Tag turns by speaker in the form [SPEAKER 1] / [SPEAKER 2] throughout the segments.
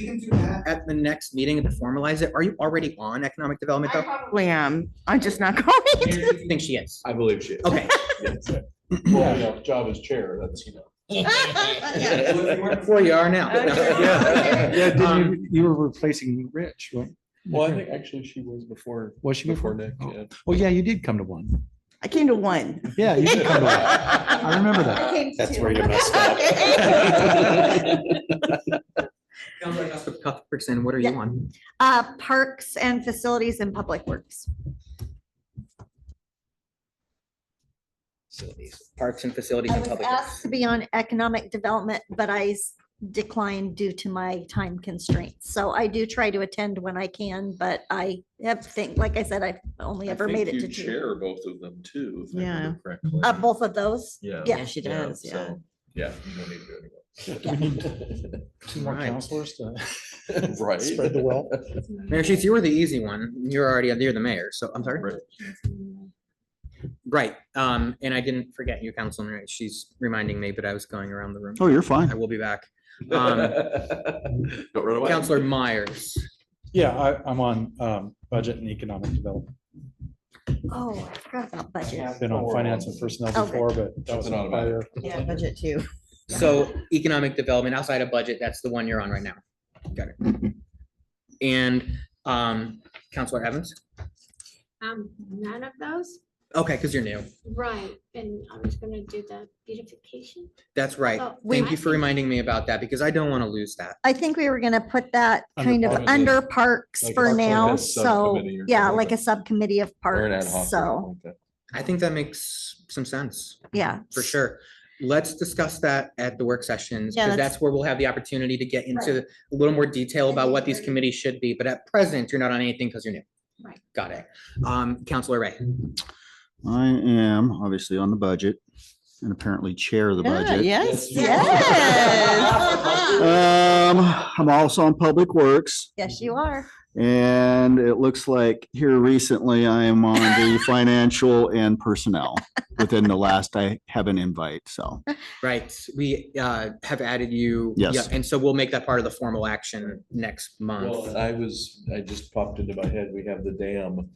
[SPEAKER 1] We can do that at the next meeting to formalize it. Are you already on economic development
[SPEAKER 2] I
[SPEAKER 1] though?
[SPEAKER 2] probably
[SPEAKER 3] Lamb, I'm just not going.
[SPEAKER 1] Do you think she is?
[SPEAKER 4] I believe she is.
[SPEAKER 1] Okay.
[SPEAKER 4] Well, you know, job as chair, that's, you
[SPEAKER 3] Yeah.
[SPEAKER 4] know.
[SPEAKER 1] Before you are now.
[SPEAKER 3] Okay.
[SPEAKER 4] Yeah.
[SPEAKER 5] Yeah, didn't
[SPEAKER 1] Um,
[SPEAKER 5] you, you were replacing Rich, right?
[SPEAKER 4] Well, I think actually she was before,
[SPEAKER 5] Was she
[SPEAKER 4] before
[SPEAKER 5] before?
[SPEAKER 4] Nick,
[SPEAKER 5] Oh.
[SPEAKER 4] yeah.
[SPEAKER 5] Oh, yeah, you did come to one.
[SPEAKER 3] I came to one.
[SPEAKER 5] Yeah, you did come to one. I remember that.
[SPEAKER 3] I came to
[SPEAKER 6] That's
[SPEAKER 3] two.
[SPEAKER 6] where you messed
[SPEAKER 3] Okay.
[SPEAKER 6] up.
[SPEAKER 1] sounds like us with Cuthbertson, what are you
[SPEAKER 7] Yeah.
[SPEAKER 1] on?
[SPEAKER 7] Uh, parks and facilities and public works.
[SPEAKER 1] Parks and facilities
[SPEAKER 7] I
[SPEAKER 1] and
[SPEAKER 7] was
[SPEAKER 1] public.
[SPEAKER 7] asked to be on economic development, but I s- declined due to my time constraints. So I do try to attend when I can, but I have think, like I said, I've only
[SPEAKER 4] I
[SPEAKER 7] ever
[SPEAKER 4] think
[SPEAKER 7] made it
[SPEAKER 4] you
[SPEAKER 7] to two.
[SPEAKER 4] Chair both of them too. if I remember correctly.
[SPEAKER 7] Uh, both of those.
[SPEAKER 4] Yeah.
[SPEAKER 7] yeah.
[SPEAKER 3] Yeah, she does, yeah.
[SPEAKER 4] so, Yeah. you don't need to do it
[SPEAKER 5] Two more
[SPEAKER 1] Right.
[SPEAKER 5] counselors to
[SPEAKER 4] anymore. Right.
[SPEAKER 5] spread the wealth.
[SPEAKER 1] Mayor Sheets, you were the easy one. You're already, you're the mayor, so I'm sorry.
[SPEAKER 4] Right.
[SPEAKER 1] Right, um, and I didn't forget you, Councilman, Wright. she's reminding me, but I was going around the room.
[SPEAKER 5] Oh, you're fine.
[SPEAKER 1] I will be back. Um,
[SPEAKER 4] Don't run away.
[SPEAKER 1] Counselor Myers.
[SPEAKER 5] Yeah, I, I'm on, um, budget and economic development.
[SPEAKER 7] Oh, I forgot about budget.
[SPEAKER 5] I've Been on finance and personnel
[SPEAKER 7] Okay.
[SPEAKER 5] before, but that was
[SPEAKER 4] Something
[SPEAKER 5] on fire.
[SPEAKER 4] automatic.
[SPEAKER 3] Yeah, budget too.
[SPEAKER 1] So economic development outside of budget, that's the one you're on right now. Got it. And, um, Counselor Evans?
[SPEAKER 2] Um, none of those,
[SPEAKER 1] Okay, because you're new.
[SPEAKER 2] right, and I was gonna do the beautification.
[SPEAKER 1] That's right.
[SPEAKER 2] Oh,
[SPEAKER 1] Thank
[SPEAKER 2] I
[SPEAKER 1] you for
[SPEAKER 2] think-
[SPEAKER 1] reminding me about that because I don't want to lose that.
[SPEAKER 7] I think we were gonna put that
[SPEAKER 5] Under
[SPEAKER 7] kind of
[SPEAKER 4] parks.
[SPEAKER 7] under parks
[SPEAKER 4] Like
[SPEAKER 7] for
[SPEAKER 4] a-
[SPEAKER 7] now,
[SPEAKER 4] like a
[SPEAKER 7] so,
[SPEAKER 4] subcommittee or
[SPEAKER 7] yeah,
[SPEAKER 4] something
[SPEAKER 7] like a
[SPEAKER 4] like
[SPEAKER 7] subcommittee of
[SPEAKER 4] Or an ad
[SPEAKER 7] parks,
[SPEAKER 4] hoc or
[SPEAKER 7] so,
[SPEAKER 4] something like
[SPEAKER 1] I think that makes some sense.
[SPEAKER 7] yeah.
[SPEAKER 1] For sure. Let's discuss that at the work sessions,
[SPEAKER 7] Yeah,
[SPEAKER 1] because
[SPEAKER 7] that's-
[SPEAKER 1] that's where we'll have the opportunity to get into a little more detail about what these committees should be, but at present, you're not on anything because you're new.
[SPEAKER 2] Right.
[SPEAKER 1] Got it. Um, Counselor Ray,
[SPEAKER 8] I am obviously on the budget and apparently chair of the
[SPEAKER 3] Yeah,
[SPEAKER 8] budget.
[SPEAKER 3] Yes,
[SPEAKER 4] Yes, you
[SPEAKER 3] yes.
[SPEAKER 8] Um, I'm also on Public Works
[SPEAKER 7] Yes, you are.
[SPEAKER 8] and it looks like here recently I am on the financial and personnel. Within the last, I have an invite, so.
[SPEAKER 1] right, we uh have added you.
[SPEAKER 8] Yes.
[SPEAKER 1] yeah, And so we'll make that part of the formal action next
[SPEAKER 4] that. Well,
[SPEAKER 1] month.
[SPEAKER 4] and I was, I just popped into my head, we have the dam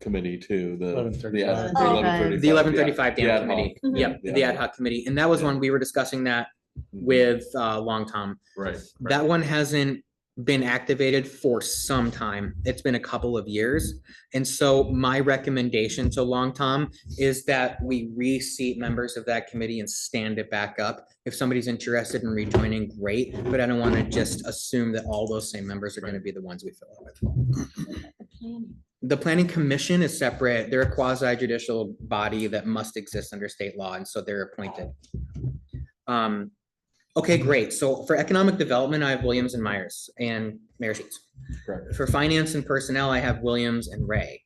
[SPEAKER 4] committee too, the.
[SPEAKER 5] 11:35.
[SPEAKER 4] the ad-
[SPEAKER 7] Oh.
[SPEAKER 1] The
[SPEAKER 4] 11:35,
[SPEAKER 1] eleven thirty-five
[SPEAKER 4] yeah, the ad
[SPEAKER 1] dam committee,
[SPEAKER 4] hoc,
[SPEAKER 1] yep,
[SPEAKER 4] yeah,
[SPEAKER 1] the ad hoc committee, and that was one we were discussing that
[SPEAKER 4] Mm-hmm.
[SPEAKER 1] with uh Long Tom.
[SPEAKER 4] Right. right.
[SPEAKER 1] That one hasn't been activated for some time. It's been a couple of years. And so my recommendation to Long Tom is that we reseat members of that committee and stand it back up. If somebody's interested in rejoining, great, but I don't want to just assume that all those same members are going to be the ones we fill it with. The planning commission is separate. They're a quasi judicial body that must exist under state law, and so they're appointed. Um, Okay, great. So for economic development, I have Williams and Myers and Mayor Sheets.
[SPEAKER 4] Correct.
[SPEAKER 1] For finance and personnel, I have Williams and Ray.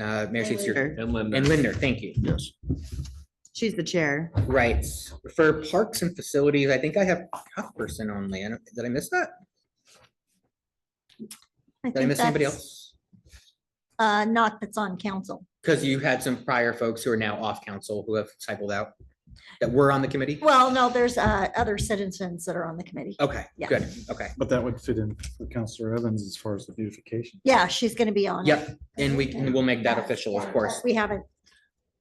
[SPEAKER 1] Uh, Mayor Sheets, you're,
[SPEAKER 3] Sure.
[SPEAKER 4] And Linda.
[SPEAKER 1] and Linder, thank you.
[SPEAKER 8] Yes.
[SPEAKER 3] She's the chair.
[SPEAKER 1] Right. For parks and facilities, I think I have Cuthbertson only. I don't- Did I miss that? Did I
[SPEAKER 7] think
[SPEAKER 1] miss anybody
[SPEAKER 7] that's,
[SPEAKER 1] else?
[SPEAKER 7] Uh, not that's on council.
[SPEAKER 1] Because you had some prior folks who are now off council who have cycled out that were on the committee?
[SPEAKER 7] Well, no, there's, uh, other citizens that are on the committee.
[SPEAKER 1] Okay,
[SPEAKER 7] Yeah.
[SPEAKER 1] good. Okay.
[SPEAKER 5] But that would fit in for Counselor Evans as far as the beautification.
[SPEAKER 7] Yeah, she's gonna be on. it.
[SPEAKER 1] Yep. And we can, we'll make that official, of course.
[SPEAKER 7] We haven't,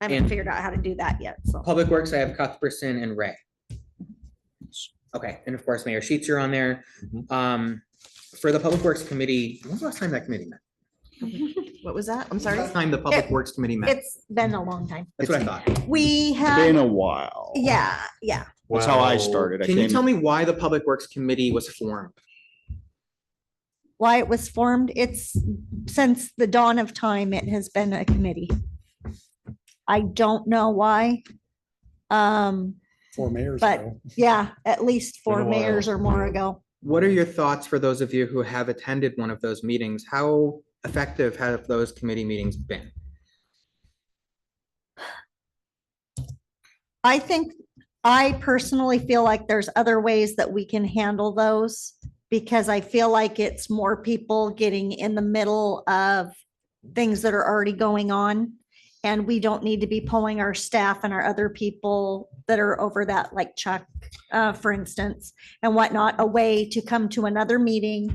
[SPEAKER 7] I
[SPEAKER 1] And-
[SPEAKER 7] haven't figured out how to do that yet, so.
[SPEAKER 1] Public Works, I have Cuthbertson and Ray. Okay, and of course, Mayor Sheets are on there.
[SPEAKER 4] Mhm.
[SPEAKER 1] Um, for the Public Works Committee, when was the last time that committee met?
[SPEAKER 3] What was that?
[SPEAKER 1] When
[SPEAKER 3] I'm
[SPEAKER 1] was the
[SPEAKER 3] sorry.
[SPEAKER 1] last Time the Public Works Committee met.
[SPEAKER 7] It's been a long time.
[SPEAKER 1] That's what I thought.
[SPEAKER 7] We
[SPEAKER 3] Uh-huh.
[SPEAKER 8] Been
[SPEAKER 7] have,
[SPEAKER 8] a while.
[SPEAKER 7] yeah, yeah.
[SPEAKER 8] That's how I
[SPEAKER 4] Wow.
[SPEAKER 8] started. I
[SPEAKER 1] Can you
[SPEAKER 8] came-
[SPEAKER 1] tell me why the Public Works Committee was formed?
[SPEAKER 7] Why it was formed, it's since the dawn of time, it has been a committee. I don't know why. Um,
[SPEAKER 5] Four mayors
[SPEAKER 7] But-
[SPEAKER 5] ago.
[SPEAKER 7] yeah, at least four
[SPEAKER 4] Been a while.
[SPEAKER 7] mayors or more ago.
[SPEAKER 1] What are your thoughts for those of you who have attended one of those meetings? How effective have those committee meetings been?
[SPEAKER 7] I think, I personally feel like there's other ways that we can handle those because I feel like it's more people getting in the middle of things that are already going on. And we don't need to be pulling our staff and our other people that are over that, like Chuck, uh, for instance, and whatnot, away to come to another meeting